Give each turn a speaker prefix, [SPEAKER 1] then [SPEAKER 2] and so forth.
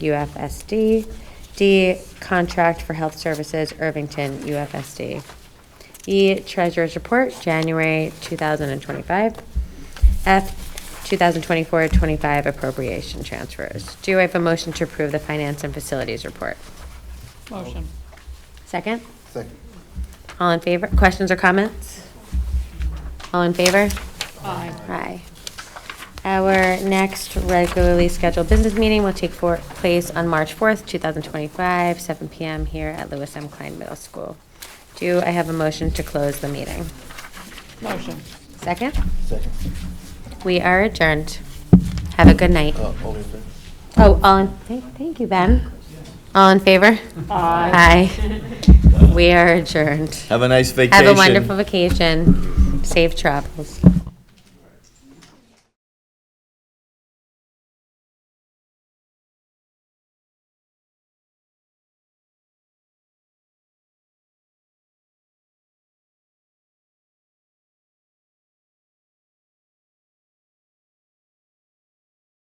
[SPEAKER 1] UFSD. D, contract for health services, Irvington, UFSD. E, treasurer's report, January 2025. F, 2024-25 appropriation transfers. Do I have a motion to approve the finance and facilities report?
[SPEAKER 2] Motion.
[SPEAKER 1] Second?
[SPEAKER 3] Second.
[SPEAKER 1] All in favor? Questions or comments? All in favor?
[SPEAKER 2] Aye.
[SPEAKER 1] Aye. Our next regularly scheduled business meeting will take for- place on March 4th, 2025, 7 PM here at Lewis M. Klein Middle School. Do I have a motion to close the meeting?
[SPEAKER 2] Motion.
[SPEAKER 1] Second?
[SPEAKER 3] Second.
[SPEAKER 1] We are adjourned. Have a good night.
[SPEAKER 3] Uh, all in favor?
[SPEAKER 1] Oh, all in, thank- thank you, Ben. All in favor? Aye. Aye. We are adjourned.
[SPEAKER 4] Have a nice vacation.
[SPEAKER 1] Have a wonderful vacation. Safe travels.